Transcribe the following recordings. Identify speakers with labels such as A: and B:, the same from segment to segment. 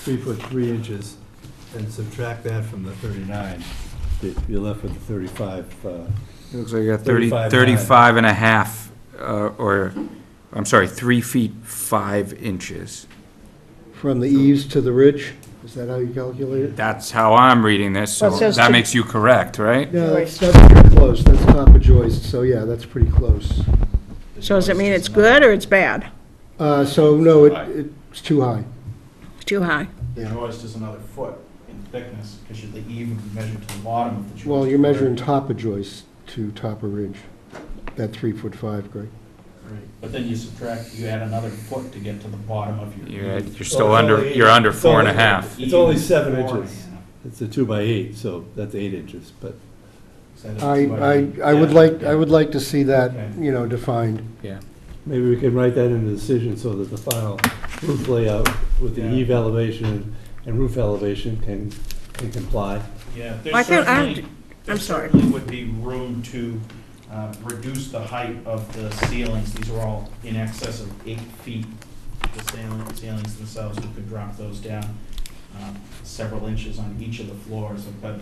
A: three foot three inches and subtract that from the thirty-nine, you- you're left with the thirty-five, uh,
B: It looks like you got
A: 30
B: thirty,
A: 35
B: thirty-five and a half, uh, or, I'm sorry, three feet, five inches.
C: From the eaves to the ridge? Is that how you calculate it?
B: That's how I'm reading this, so
D: Well, it says
B: that
D: to-
B: makes you correct, right?
C: No, that's, that's pretty close. That's top of joist, so yeah, that's pretty close.
D: So does it mean it's good or it's bad?
C: Uh, so no,
E: High.
C: it, it's too high.
D: It's Too high?
E: The joist is another foot in thickness, because the eve would be measured to the bottom of the joist.
C: Well, you're measuring top of joist to top of ridge, that three foot five, Greg.
E: Right. But then you subtract, you add another foot to get to the bottom of your
B: You're,
E: eve.
B: you're still under, you're under four and a half.
A: It's only seven
E: Four and a
A: inches.
E: half.
A: it's a two by eight, so that's eight inches, but
E: So that's
C: I,
E: what
C: I, I would
E: yeah,
C: like, I
E: yeah.
C: would like to see
E: Okay.
C: that, you know, defined.
B: Yeah.
A: maybe we can write that in the decision so that the final roof layout with the
E: Yeah.
A: eave elevation and roof elevation can, can comply.
E: Yeah,
D: Why
E: there
D: can't I-
E: certainly, there
D: I'm sorry.
E: certainly would be room to uh, reduce the height of the ceilings. These are all in excess of eight feet. The sail- ceilings themselves, we could drop those down um, several inches on each of the floors, but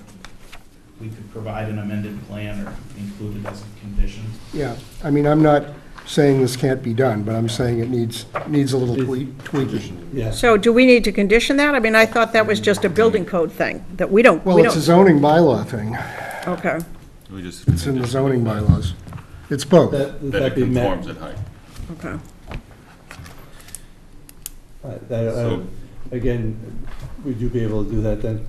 E: we could provide an amended plan or include it as a condition.
C: Yeah, I mean, I'm not saying this can't be done, but I'm saying it needs, needs a little tweak, tweaking.
A: Yeah,
D: So do we need to condition that? I mean, I thought that was just a building code thing, that we don't,
C: Well,
D: we
C: it's a
D: don't,
C: zoning bylaw thing.
D: okay.
F: We just.
C: It's in the zoning bylaws. It's both.
A: that,
F: That
A: that
F: it
A: be met.
F: conforms at height.
D: Okay.
A: All right, that- uh,
F: So-
A: Again, would you be able to do that then?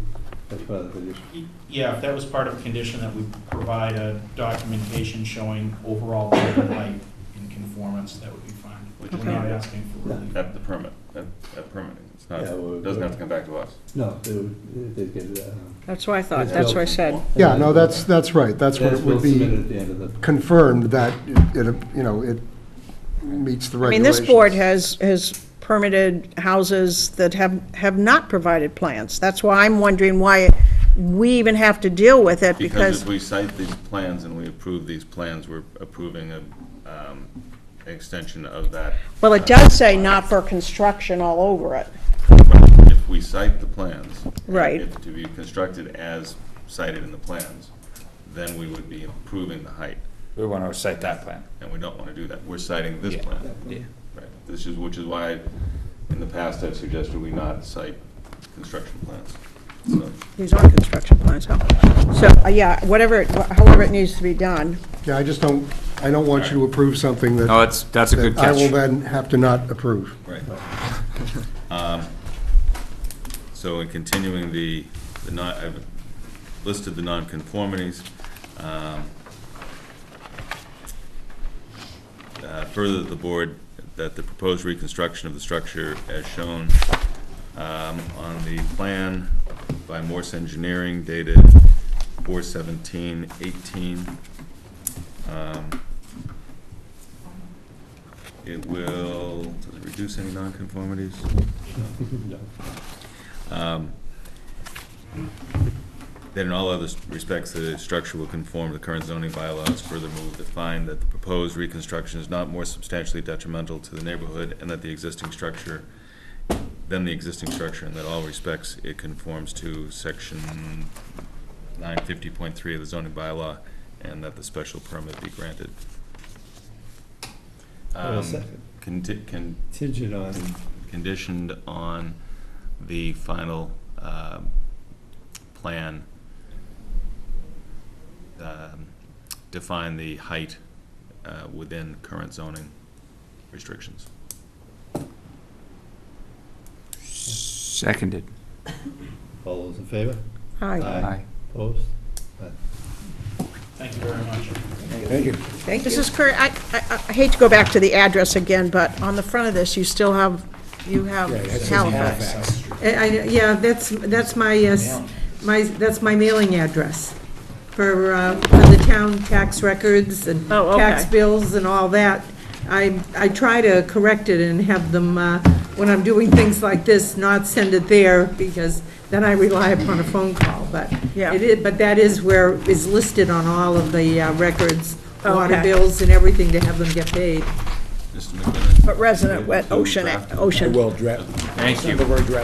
A: That's part of the condition.
E: Yeah, if that was part of a condition, that we provide a documentation showing overall building height in conformance, that would be fine.
F: Which
E: We're
F: is
E: not
F: not
E: asking for relief.
F: at the permit, at, at permitting. It's not,
A: Yeah, well,
F: doesn't have to come back to us.
A: No, they would, they'd get it. uh,
D: That's what I thought, that's what I said.
C: Yeah, no, that's, that's right. That's what it would
A: Submit
C: be
A: at the end of the,
C: confirmed that it, it, you know, it meets the
D: I mean,
C: regulations.
D: this board has, has permitted houses that have, have not provided plans. That's why I'm wondering why we even have to deal with it,
F: Because
D: because,
F: if we cite these plans and we approve these plans, we're approving a, um, extension of that.
D: well, it does say not for construction all over it.
F: If we cite the plans. and
D: Right.
F: if To be constructed as cited in the plans, then we would be improving the height,
B: We want to cite that plan.
F: and we don't want to do that. We're citing this
B: Yeah.
F: plan.
B: Yeah.
F: Right. This is, which is why, in the past, I've suggested we not cite construction plans. So,
D: These are construction plans, huh? So, uh, yeah, whatever, it- however it needs to be done.
C: Yeah, I just don't, I don't want you to approve something that.
B: No, it's, that's a good
C: that I will
B: catch.
C: then have to not approve.
F: Right. Um, So in continuing the, the non, I've listed the nonconformities. um, uh, Further, the board, that the proposed reconstruction of the structure as shown um, on the plan by Morse Engineering dated 4/17/18. um, it will, does it reduce any nonconformities?
A: no.
F: Um, That in all other respects, the structure will conform to current zoning bylaws. Further move to find that the proposed reconstruction is not more substantially detrimental to the neighborhood and that the existing structure, than the existing structure, and that all respects it conforms to section nine fifty point three of the zoning bylaw, and that the special permit be granted.
A: Wait a
F: Um,
A: second.
F: conti- con-
A: Contingent on,
F: conditioned on the final um, plan um, define the height uh, within current zoning restrictions.
B: Seconded.
A: all those in favor?
D: Hi,
B: Aye.
A: Opposed?
E: Thank you very much.
D: thank you. Mrs. Curry, I, I I hate to go back to the address again, but on the front of this, you still have, you have Halifax.
G: I- I- Yeah, that's, that's my, uh, s- my, that's my mailing address for, uh, for the town tax records and
D: Oh, okay.
G: tax bills and all that. I, I try to correct it and have them, uh, when I'm doing things like this, not send it there because then I rely upon a phone call, but
D: Yeah.
G: it is, but that is where is listed on all of the uh, records, water
D: Okay.
G: bills and everything to have them get paid.
F: Mr. McKinnon?
D: But resident, what, Ocean, Ocean.
B: Thank you.